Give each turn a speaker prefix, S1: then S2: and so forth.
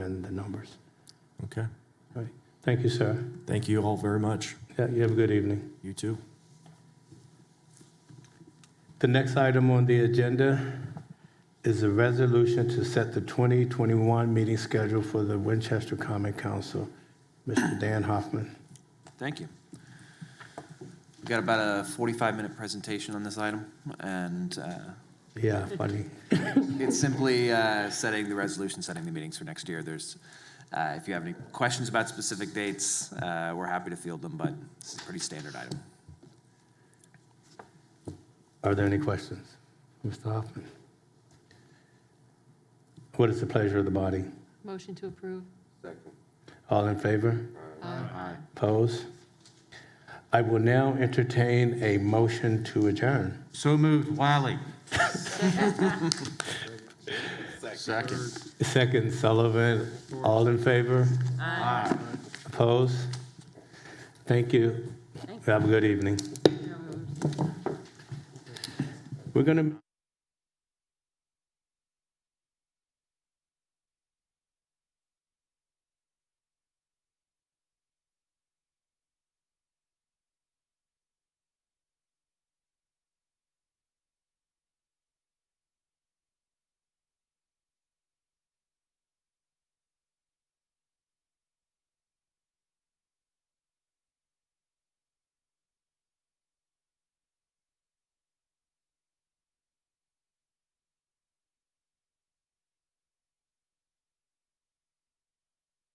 S1: numbers.
S2: Okay.
S1: All right. Thank you, sir.
S2: Thank you all very much.
S1: Yeah, You have a good evening.
S2: You too.
S1: The next item on the agenda is a resolution to set the 2021 meeting schedule for the Winchester Common Council. Mr. Dan Hoffman.
S3: Thank you. We've got about a 45-minute presentation on this item, and uh,
S1: Yeah, funny.
S3: it's simply uh, setting the resolution, setting the meetings for next year. There's, uh, if you have any questions about specific dates, uh, we're happy to field them, but it's a pretty standard item.
S1: Are there any questions? Mr. Hoffman? What is the pleasure of the body?
S4: Motion to approve.
S1: All in favor? Opposed? I will now entertain a motion to adjourn.
S5: So moved, Wiley. Second.
S1: Second, Sullivan. All in favor? Aye. Opposed? Thank you. Have a good evening. We're going to.